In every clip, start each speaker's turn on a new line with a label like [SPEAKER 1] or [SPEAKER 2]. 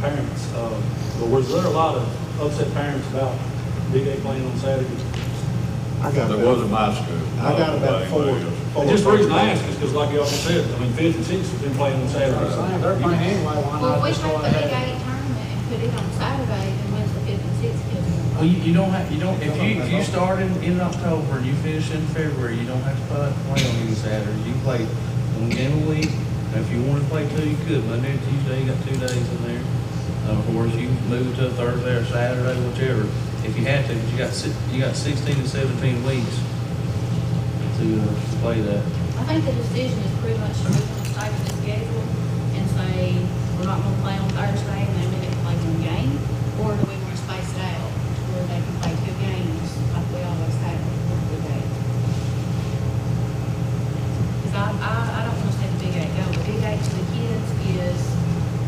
[SPEAKER 1] parents, uh, but was there a lot of upset parents about D-Day playing on Saturday?
[SPEAKER 2] I got
[SPEAKER 3] There
[SPEAKER 2] about,
[SPEAKER 3] was a my school.
[SPEAKER 2] I got about four. four
[SPEAKER 1] And just the reason I ask is because like y'all said, I mean, fifth and sixth have been playing on Saturday.
[SPEAKER 4] Saying they're playing anyway, why
[SPEAKER 5] Well,
[SPEAKER 4] not
[SPEAKER 5] we
[SPEAKER 4] just
[SPEAKER 5] make
[SPEAKER 4] go
[SPEAKER 5] the big
[SPEAKER 4] ahead?
[SPEAKER 5] eight tournament and put it on Saturday and when's the fifth and sixth kids.
[SPEAKER 6] Well, you, you don't have, you don't, if you, if you start in, in October and you finish in February, you don't have to play, play on any Saturday. You play one game a week, and if you wanna play two, you could, Monday and Tuesday, you got two days in there. Uh, Of course, you can move to Thursday or Saturday, whichever, if you had to, but you got si, you got sixteen to seventeen weeks to, uh, to play that.
[SPEAKER 5] I think the decision is pretty much we're gonna stay with the schedule and say, we're not gonna play on Thursday and then they can play one game? Or do we wanna space it out to where they can play two games like we always have with the eight? Cause I, I, I don't wanna say the big eight, no, the big eight to the kids is,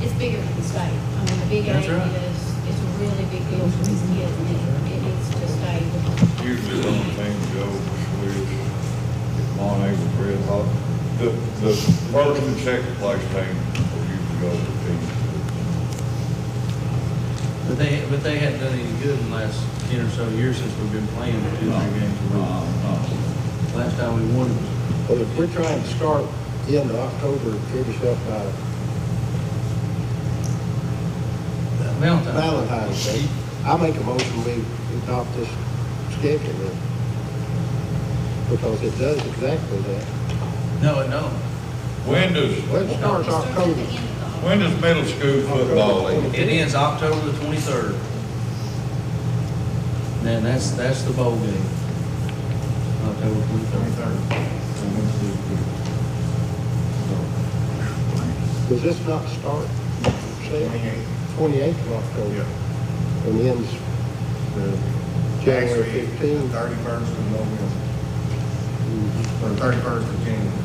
[SPEAKER 5] it's bigger than the state. I mean, the big
[SPEAKER 6] That's
[SPEAKER 5] eight
[SPEAKER 6] right.
[SPEAKER 5] is, it's a really big deal for these kids and it, it needs to stay.
[SPEAKER 3] Usually the only thing to go was if Monty was red hot. The, the first and second place team will usually go to the
[SPEAKER 6] But they, but they hadn't done any good in the last ten or so years since we've been playing two, three games a week. Last time we won was
[SPEAKER 2] Well, if we're trying to start in October, and finish up by
[SPEAKER 6] Valentine's.
[SPEAKER 2] Valentine's Day, I make a motion we adopt this schedule then. Because it does exactly that.
[SPEAKER 6] No, no.
[SPEAKER 3] When does,
[SPEAKER 2] Well, it starts
[SPEAKER 5] Starts at the
[SPEAKER 2] October.
[SPEAKER 5] end of the-
[SPEAKER 3] when does middle school football end?
[SPEAKER 6] It ends October the twenty-third. Then that's, that's the bowl game. October twenty-third.
[SPEAKER 2] Does this not start? Twenty-eighth of October. And ends uh, January fifteenth.
[SPEAKER 7] Thirty-first of November, or thirty-first of January.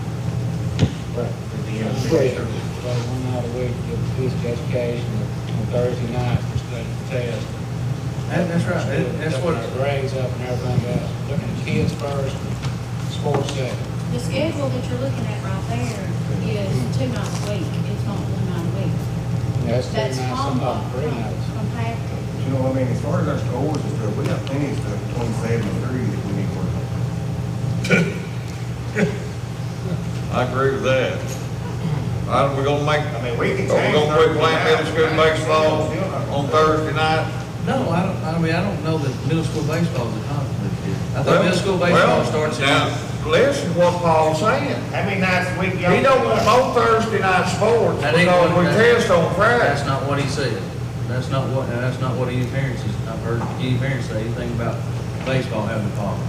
[SPEAKER 7] at the end of the
[SPEAKER 2] Right.
[SPEAKER 7] year.
[SPEAKER 4] Play one night a week, get physical education on Thursday night, for study test.
[SPEAKER 6] That, that's right, That- that's what,
[SPEAKER 4] Looking at Grades up and everything else, looking at kids first, sports second.
[SPEAKER 5] The schedule that you're looking at right there is two nights a week, it's not one night a week.
[SPEAKER 4] That's two
[SPEAKER 5] That's
[SPEAKER 4] nights, some
[SPEAKER 5] combo,
[SPEAKER 4] of three
[SPEAKER 5] right,
[SPEAKER 4] nights.
[SPEAKER 5] compacted.
[SPEAKER 7] You know, what I mean, as far as our scores and stuff, we have plenty of stuff between seven and three that we need to work on.
[SPEAKER 3] I agree with that. I, we're gonna make,
[SPEAKER 7] I mean, we can
[SPEAKER 3] Are we
[SPEAKER 7] change
[SPEAKER 3] gonna quit
[SPEAKER 7] Thursday
[SPEAKER 3] playing middle
[SPEAKER 7] night.
[SPEAKER 3] school baseball on Thursday night?
[SPEAKER 6] no, I don't, I mean, I don't know that middle school baseball is a conflict here. I thought middle school
[SPEAKER 3] Well,
[SPEAKER 6] baseball starts in.
[SPEAKER 3] Now, listen what Paul's saying.
[SPEAKER 7] How many nights a week y'all?
[SPEAKER 3] He don't want no Thursday night sports
[SPEAKER 6] That ain't
[SPEAKER 3] because we
[SPEAKER 6] what- that-
[SPEAKER 3] test on Friday.
[SPEAKER 6] That's not what he said. That's not what, and that's not what any parents, is- I've heard any parents say anything about baseball having a problem.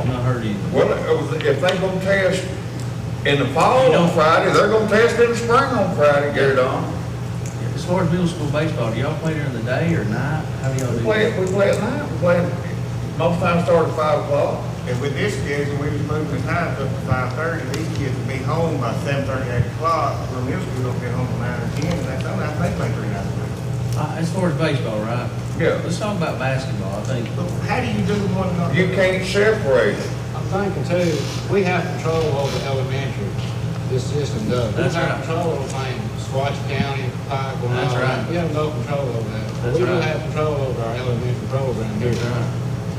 [SPEAKER 6] I've not heard anything.
[SPEAKER 3] Well, if they gonna test in the fall on Friday, they're gonna test in the spring on Friday, get it on.
[SPEAKER 6] As far as middle school baseball, do y'all play during the day or night? How do y'all
[SPEAKER 3] We
[SPEAKER 6] do
[SPEAKER 3] play, it-
[SPEAKER 6] that?
[SPEAKER 3] we play at night, we play, it- most times start at five o'clock.
[SPEAKER 7] And with this schedule, we was moving the times up to five thirty, these kids will be home by seven thirty, eight o'clock, where middle school will be home at nine or ten, and that's, I think they play three nights a week.
[SPEAKER 6] Uh, As far as baseball, right?
[SPEAKER 3] Yeah.
[SPEAKER 6] Let's talk about basketball, I think.
[SPEAKER 7] But how do you do one another?
[SPEAKER 3] You can't separate it.
[SPEAKER 4] I'm thinking too, we have control over elementary, this system does.
[SPEAKER 6] That's
[SPEAKER 4] We have
[SPEAKER 6] right.
[SPEAKER 4] control over things, Swatch County, Pike, and all
[SPEAKER 6] That's
[SPEAKER 4] that.
[SPEAKER 6] right.
[SPEAKER 4] We have no control over that.
[SPEAKER 6] That's
[SPEAKER 4] We do
[SPEAKER 6] right.
[SPEAKER 4] have control over our elementary program here.
[SPEAKER 6] That's right.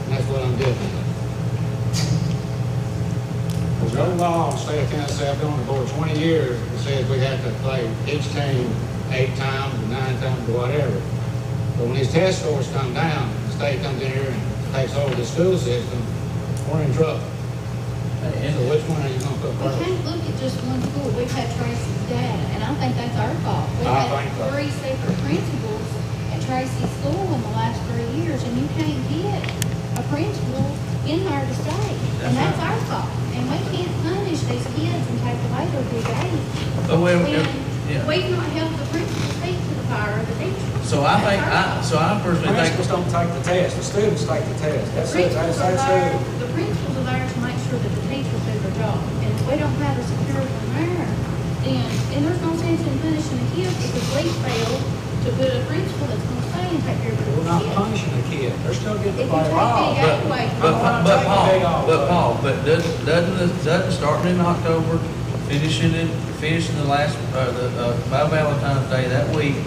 [SPEAKER 4] And that's what I'm getting at. There's no law in the state of Tennessee, I've been on the board twenty years, that says we have to play each team eight times, or nine times, or whatever. But when these test scores come down, the state comes in here and takes over the school system, we're in trouble. So
[SPEAKER 6] And-
[SPEAKER 4] which one are you gonna put
[SPEAKER 5] We
[SPEAKER 4] first?
[SPEAKER 5] can't look at just one school, we've had Tracy's dad, and I think that's our fault. We've
[SPEAKER 4] I
[SPEAKER 5] had
[SPEAKER 4] think so.
[SPEAKER 5] three separate principals at Tracy's school in the last three years, and you can't get a principal in there to stay. And
[SPEAKER 6] That's
[SPEAKER 5] that's our fault, and we can't punish these kids and take away their big eight.
[SPEAKER 6] But we-
[SPEAKER 5] When
[SPEAKER 6] Oh, yeah.
[SPEAKER 5] we've not helped the principal speak to the power of the teacher.
[SPEAKER 6] So I think, I, so I personally think,
[SPEAKER 4] Principals don't take the test, the students take the test. That's it, that's,
[SPEAKER 5] Principals are
[SPEAKER 4] that's
[SPEAKER 5] there,
[SPEAKER 4] it.
[SPEAKER 5] the principals are there to make sure that the teachers do their job, and if we don't have a security in there, then, and there's no sense in punishing the kids because we failed to put a principal that's gonna stay and take care of
[SPEAKER 4] We're not
[SPEAKER 5] the kids.
[SPEAKER 4] punishing the kid, they're still
[SPEAKER 5] If
[SPEAKER 4] getting to
[SPEAKER 5] you
[SPEAKER 4] play
[SPEAKER 5] take
[SPEAKER 4] ball.
[SPEAKER 5] the eight away,
[SPEAKER 6] but, but Paul, but Paul, but doesn't, doesn't, doesn't starting in October, finishing it, finishing the last, uh, the, uh, by Valentine's Day that week,